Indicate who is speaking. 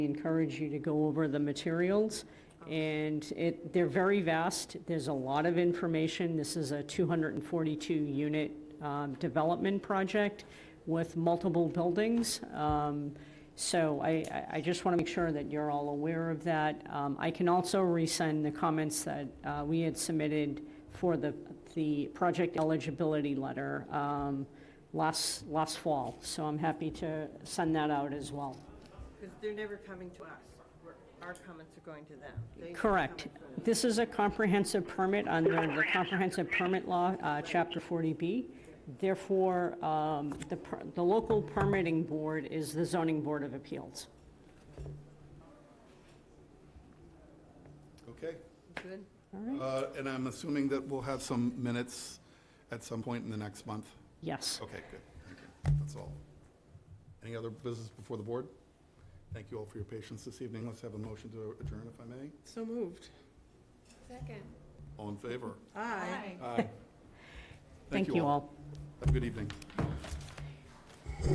Speaker 1: We encourage you to go over the materials, and it, they're very vast. There's a lot of information. This is a 242-unit um, development project with multiple buildings. Um, So I, I- I just want to make sure that you're all aware of that. Um, I can also resend the comments that uh, we had submitted for the, the project eligibility letter um, last, last fall. So I'm happy to send that out as well.
Speaker 2: Because they're never coming to us. We're- Our comments are going to them. They-
Speaker 1: Correct. This is a comprehensive permit under the comprehensive permit law, uh, Chapter 40B. Therefore, um, the per- the local permitting board is the zoning board of appeals.
Speaker 3: Okay,
Speaker 2: Good?
Speaker 3: Uh, and I'm assuming that we'll have some minutes at some point in the next month?
Speaker 1: Yes.
Speaker 3: Okay, good, thank you, that's all. Any other business before the board? Thank you all for your patience this evening, let's have a motion to adjourn if I may.
Speaker 2: So moved.
Speaker 4: Second.
Speaker 3: All in favor?
Speaker 2: Aye.
Speaker 3: Aye.
Speaker 1: Thank you all.
Speaker 3: Have a good evening.